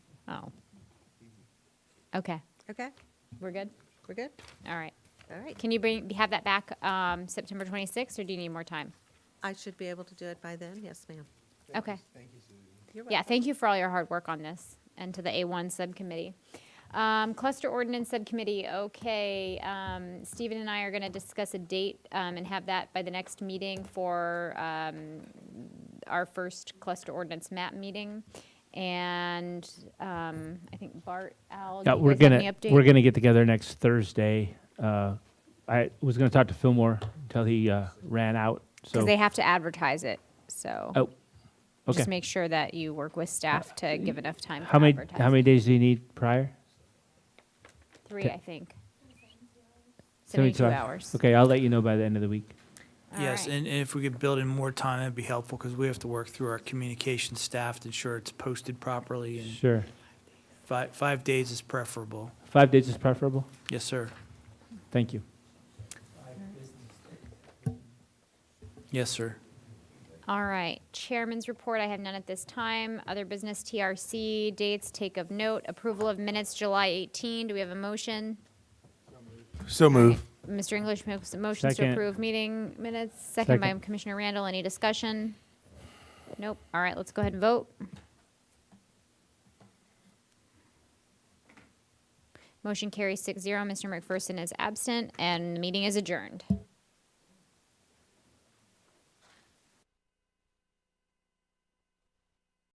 Oh. Okay, Okay, we're good? we're good? All right. All right. Can you bring, have that back um, September 26th, or do you need more time? I should be able to do it by then? Yes, ma'am. Okay. You're Yeah, welcome. thank you for all your hard work on this and to the A1 subcommittee. Um, cluster ordinance subcommittee, okay, um, Stephen and I are going to discuss a date um, and have that by the next meeting for um, our first cluster ordinance map meeting. And um, I think Bart, Al, do Yeah, you we're guys have gonna any update? we're gonna get together next Thursday. Uh, I was gonna talk to Fillmore until he uh, ran out. So Because they have to advertise it, so. oh, okay. Uh, Just make sure that you work with staff to give enough time How for many advertising. how many days do you need prior? Three, I think. 72 Seventy-two hours. Okay, I'll let you know by the end of the week. All Yes, right. and and if we could build in more time, that'd be helpful, because we have to work through our communication staff to ensure it's posted properly, and Sure, five, five days is preferable. five days is preferable. Yes, sir. Thank you. Yes, sir. All right, chairman's report, I have none at this time. Other business TRC, dates, take of note, approval of minutes, July 18. Do we have a motion? So move. Mr. English makes motions to Second. approve meeting minutes, second by Second. Commissioner Randall. Any discussion? Nope. All right, let's go ahead and vote. Motion carries six zero. Mr. McPherson is absent, and the meeting is adjourned.